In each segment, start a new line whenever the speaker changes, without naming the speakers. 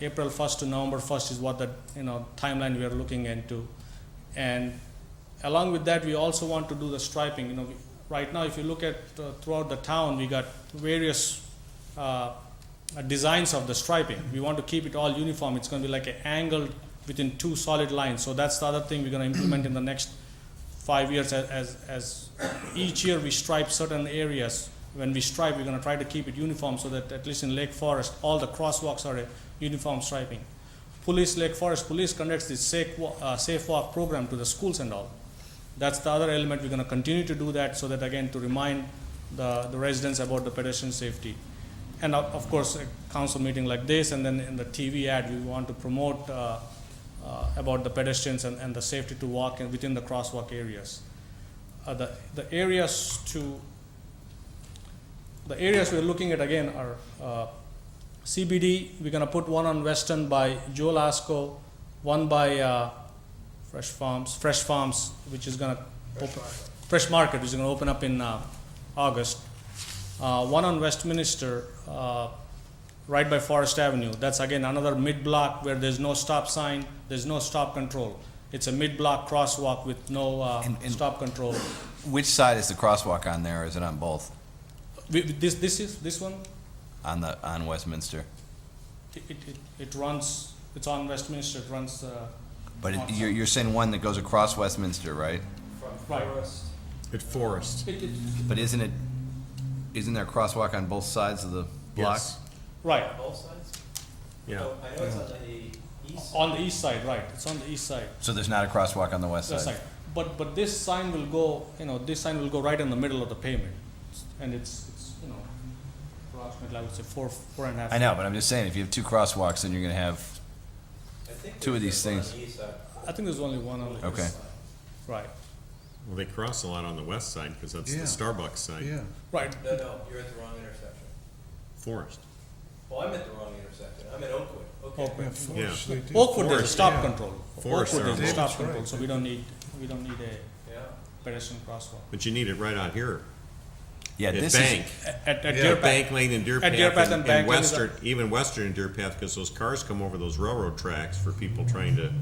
April 1st to November 1st is what the, you know, timeline we are looking into. And along with that, we also want to do the striping, you know, we- right now, if you look at uh, throughout the town, we got various uh, uh, designs of the striping. We want to keep it all uniform, it's gonna be like an angled within two solid lines, so that's the other thing we're gonna implement in the next five years as, as, as each year we stripe certain areas. When we stripe, we're gonna try to keep it uniform so that at least in Lake Forest, all the crosswalks are a uniform striping. Police, Lake Forest Police conducts this safe, wa- uh, safe walk program to the schools and all. That's the other element, we're gonna continue to do that so that again, to remind the, the residents about the pedestrian safety. And uh, of, of course, a council meeting like this and then in the TV ad, we want to promote, uh, uh, about the pedestrians and, and the safety to walk and within the crosswalk areas. Uh, the, the areas to, the areas we're looking at again are, uh, CBD, we're gonna put one on Western by Joe Lasco, one by, uh, Fresh Farms, Fresh Farms, which is gonna. Fresh Market. Fresh Market, which is gonna open up in, uh, August. Uh, one on Westminster, uh, right by Forest Avenue. That's again another mid-block where there's no stop sign, there's no stop control. It's a mid-block crosswalk with no, uh,
And- and-
stop control.
Which side is the crosswalk on there? or Is it on both?
We, this, this is, this one,
On the on Westminster,
it, it, it- it runs, it's on Westminster, it runs, uh,
but it,
on-
you're, you're saying one that goes across Westminster, right?
Right.
At Forest.
It- it-
But isn't it? Isn't there a crosswalk on both sides of the block?
Yes.
Right,
Both sides?
Yeah.
Oh, I know it's on the east.
on the east side, right, it's on the east side.
So there's not a crosswalk on the west
That's
side.
right. But, but this sign will go, you know, this sign will go right in the middle of the pavement. And it's, it's, you know, approximately, I would say four, four and a half.
I know, but I'm just saying if you have two crosswalks, then you're going to have.
I think
Two of
there's
these
one on
things.
the east side.
I think there's only one on the.
Okay.
Right,
Well, they cross a lot on the west side because that's the
Yeah.
Starbucks side.
Yeah,
right.
No, no, you're at the wrong intersection.
Forest.
Well, I'm at the wrong intersection. I'm at Oakwood. Okay.
Oakwood.
yeah, Forest,
Yeah.
they do.
Oakwood, there's a
Forest,
stop
yeah.
control.
Forest
Oakwood, there's a
area.
stop
That's
control,
right.
so we don't need, we don't need a
Yeah.
pedestrian crosswalk.
But you need it right out here.
Yeah,
At
this
Bank.
is.
At, at
Yeah,
Deer
At Bank Lane and Deer
At
Path.
Deer Path and Bank Lane is a-
Western, even Western and Deer Path, because those cars come over those railroad tracks for people trying to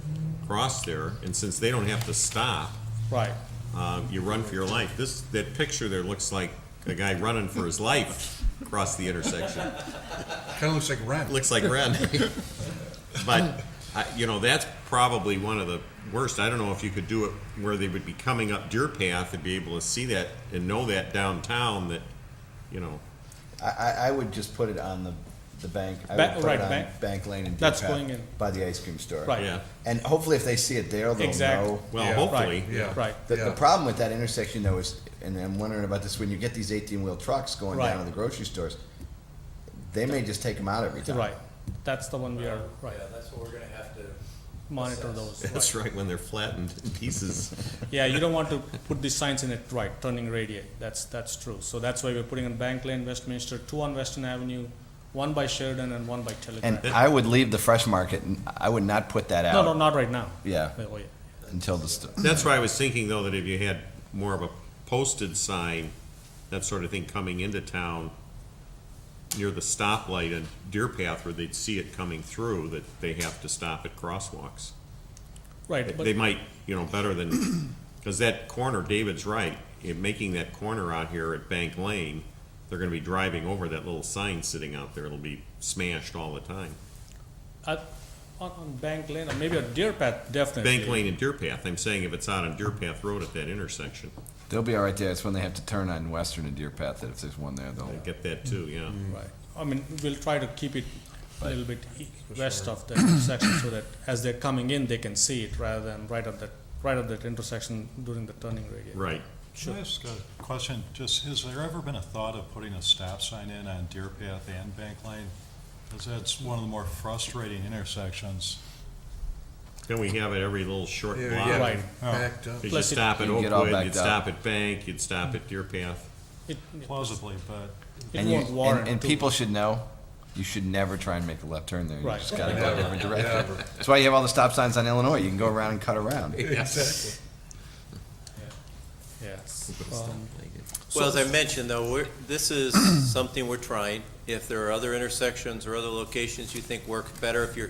cross there. And since they don't have to stop,
Right,
um, you run for your life. This, that picture there looks like a guy running for his life across the intersection.
Kinda looks like rent.
looks like red. but I, you know, that's probably one of the worst. I don't know if you could do it where they would be coming up Deer Path and be able to see that and know that downtown that, you know,
I, I, I would just put it on the the bank. I
Ba-
would put
right,
it on
bank.
bank Lane and Deer
That's
Path
going in.
by the ice cream store.
Right.
yeah.
And hopefully, if they see it there, they'll
Exactly.
know.
Well,
Yeah.
hopefully,
Yeah.
right.
The, the
Yeah.
problem with that intersection though is, and I'm wondering about this, when you get these eighteen-wheel trucks going
Right.
down to the grocery stores, they may just take them out every time.
Right, that's the one we are, right,
Yeah, that's what we're gonna have to.
monitor
Assess.
those.
that's right when they're flattened in pieces.
Yeah, you don't want to put these signs in it right, turning radii, that's, that's true. So that's why we're putting on Bank Lane, Westminster, two on Western Avenue, one by Sheridan and one by
And
Telegraph.
I would leave the fresh market, and I would not put that
No, no,
out,
not right now.
yeah,
Oh, yeah.
until the, st-
That's why I was thinking though that if you had more of a posted sign, that sort of thing coming into town near the stoplight and Deer Path where they'd see it coming through, that they have to stop at crosswalks.
Right,
they
but,
might, you know, better than, because that corner, David's right, in making that corner out here at Bank Lane, they're gonna be driving over that little sign sitting out there, it'll be smashed all the time.
uh, on, on Bank Lane, or maybe on Deer Path, definitely.
Bank Lane and Deer Path, I'm saying if it's out on Deer Path Road at that intersection,
they'll be all right there, it's when they have to turn on Western and Deer Path, that if there's one there, they'll,
I get that too, yeah.
Right, I mean, we'll try to keep it a little bit e- west of the intersection so that as they're coming in, they can see it rather than right at that, right at that intersection during the turning radii.
Right,
Can I ask a question? Just, has there ever been a thought of putting a stop sign in on Deer Path and Bank Lane? Because that's one of the more frustrating intersections.
then we have it every little short
Yeah, yeah,
block.
Right.
backed up.
Cause you
Plus it-
stop at
You'd get all
Oakwood, you'd
backed up.
stop at Bank, you'd stop at Deer Path,
It, it-
Plausibly, but
it
and you,
won't warrant.
and, and
too
people should know, you should never try and make a left turn there, you
Right.
just gotta go a different direction.
Never.
That's why you have all the stop signs on Illinois, you can go around and cut around.
Exactly.
Yes. Um,
Well, as I mentioned, though, we're, this is something we're trying. If there are other intersections or other locations you think work better, if you're